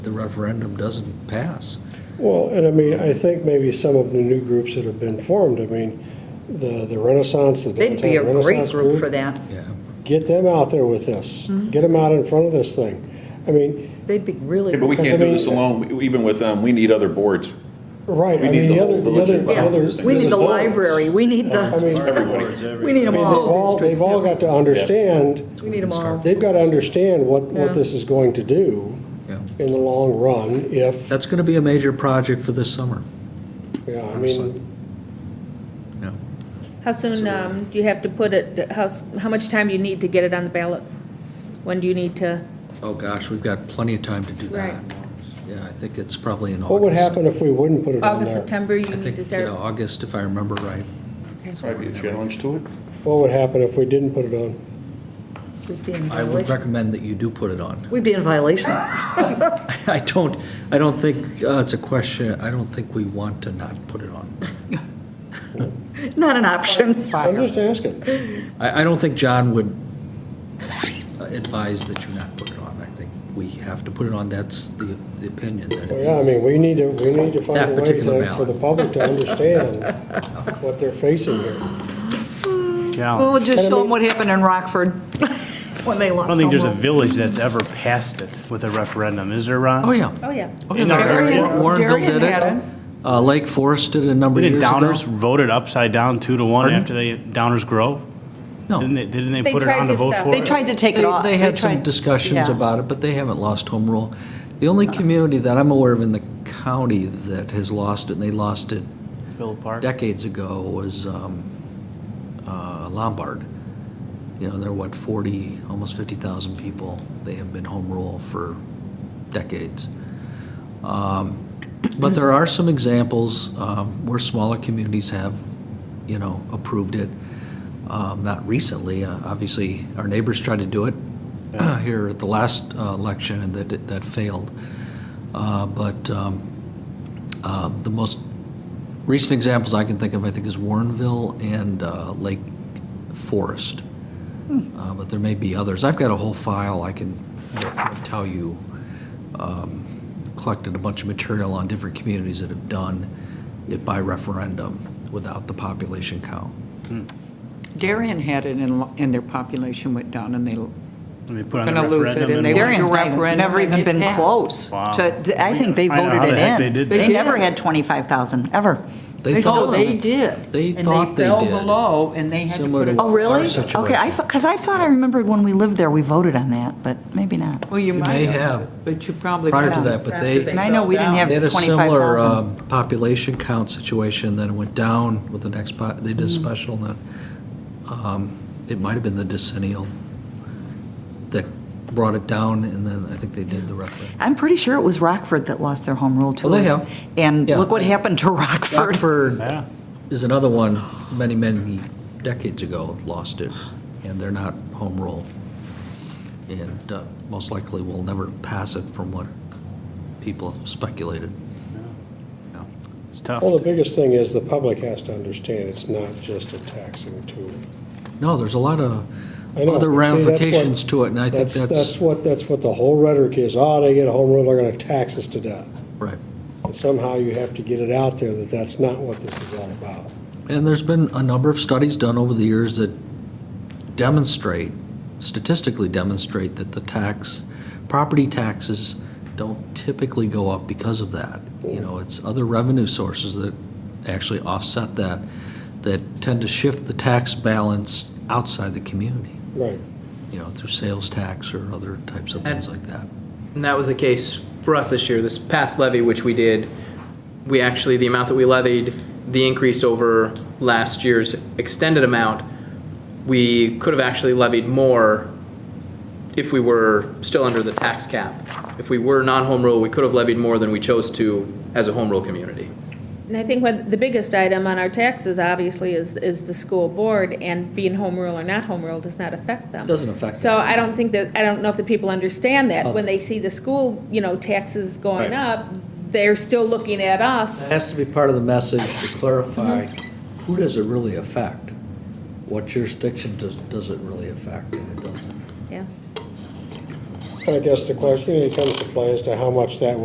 the referendum doesn't pass. Well, and I mean, I think maybe some of the new groups that have been formed, I mean, the the Renaissance, the They'd be a Downtown great Renaissance group for group, that. Mm-hmm. Yeah. get them out there with this. Get them out in front of this thing. I mean, They'd be really. Yeah, but we Because, can't I do this mean- alone, even with them, we need other boards. right, We I mean, need the the whole other, the village other, involved the in other. this Yeah, thing. we This need is the all- library, we I need mean- the, Everybody. we need I them mean, they've all, all. they've all got to understand, We need them all. they've got to understand what, Yeah. what this is going to do Yeah. in the long run if, That's going to be a major project for this summer. yeah, I Absolutely. mean, Yeah. How soon um, do you have to put it, how, s- how much time do you need to get it on the ballot? When do you need to? Oh, gosh, we've got plenty of time to do that. Right. Yeah, I think it's probably in August. what would happen if we wouldn't put it on August, there? September, you I need think, to yeah, start? August, if I remember right. Probably be a challenge to it. What would happen if we didn't put it on? We'd be in I would violation. recommend that you do put it on. We'd be in violation. I don't, I don't think, uh, it's a question, I don't think we want to not put it on. Not an option. I'm just asking. I, I don't think John would advise that you not put it on. I think we have to put it on, that's the, the opinion that it Well, Yeah, I is. mean, we need to, we need to That find a way particular to, ballot. for the public to understand what they're facing here. Well, Challenge. we'll just show them what happened in Rockford when they I lost don't think there's a home rule. village that's ever passed it with a referendum, is there, Ron? Oh, yeah. Oh, yeah. Oh, yeah, Darian- Warren- Warrenville Darian did had it. it. Uh, Lake Forest did it a number of Didn't years ago. Downers vote it upside down two to one Pardon? after they, Downers Grove? Didn't No. they, didn't they They put it tried on to to vote stop for it. it? They tried to take They it off. they had some tried- discussions yeah. Uh. about it, but they haven't lost home rule. The only community that I'm aware of in the county that has lost it, and they lost it Villa Park? decades ago, was um, uh, Lombard. You know, they're what, 40, almost 50,000 people. They have been home rule for decades. Um, But there are some examples um, where smaller communities have, you know, approved it. Um, Not recently, uh, obviously, our neighbors tried to do it here at the last uh, election, and that, that failed. Uh, But um, uh, the most recent examples I can think of, I think, is Warrenville and uh, Lake Forest. Uh, But there may be others. I've got a whole file I can tell you collected a bunch of material on different communities that have done it by referendum without the population count. Darien had it in, and their population went down and they, And they put it on the gonna lose it, referendum and and they won. were- Darian's not- referendum never and even it been passed. close Wow. to, I think they I know voted how the it heck in. they did They They did. never had 25,000, ever. they thought- thought they did. They And thought they fell did. below and they had to Similar to put it. Oh, really? Our situation. Okay, I thought, because I thought I remembered when we lived there, we voted on that, but maybe not. Well, you You might may have. have, but you probably. Prior to couldn't. that, but they- And I know we didn't have They had a similar 25,000. um, population count situation, then it went down with the next, po- they did a special, and then, um, it might have been the decennial that brought it down, and then I think they did the referendum. I'm pretty sure it was Rockford that lost their home rule to Well, us. they have. And Yeah. look what happened to Rockford. Rockford Yeah. is another one, many, many decades ago, lost it, and they're not home rule. And uh, most likely will never pass it from what people have speculated. Yeah. It's tough. Well, the biggest thing is the public has to understand it's not just a taxing tool. No, there's a lot of I know, other but see, that's what- ramifications to it, and I think That's that's, what, that's what the whole rhetoric is, oh, they get a home rule, they're gonna tax us to death. right. And somehow you have to get it out there that that's not what this is all about. And there's been a number of studies done over the years that demonstrate, statistically demonstrate, that the tax, property taxes don't typically go up because of that. You know, it's other revenue sources that actually offset that, that tend to shift the tax balance outside the community, Right. you know, through sales tax or other types of things like that. And that was the case for us this year. This past levy, which we did, we actually, the amount that we levied, the increase over last year's extended amount, we could have actually levied more if we were still under the tax cap. If we were non-home rule, we could have levied more than we chose to as a home rule community. And I think what, the biggest item on our taxes, obviously, is, is the school board, and being home rule or not home rule does not affect them. Doesn't affect So them. I don't think that, I don't know if the people understand that. When they see the school, you know, taxes going Right. up, they're still looking at us. It has to be part of the message to clarify, who does it really affect? What jurisdiction does, does it really affect? And it doesn't. Yeah. I guess the question, it comes to play as to how much that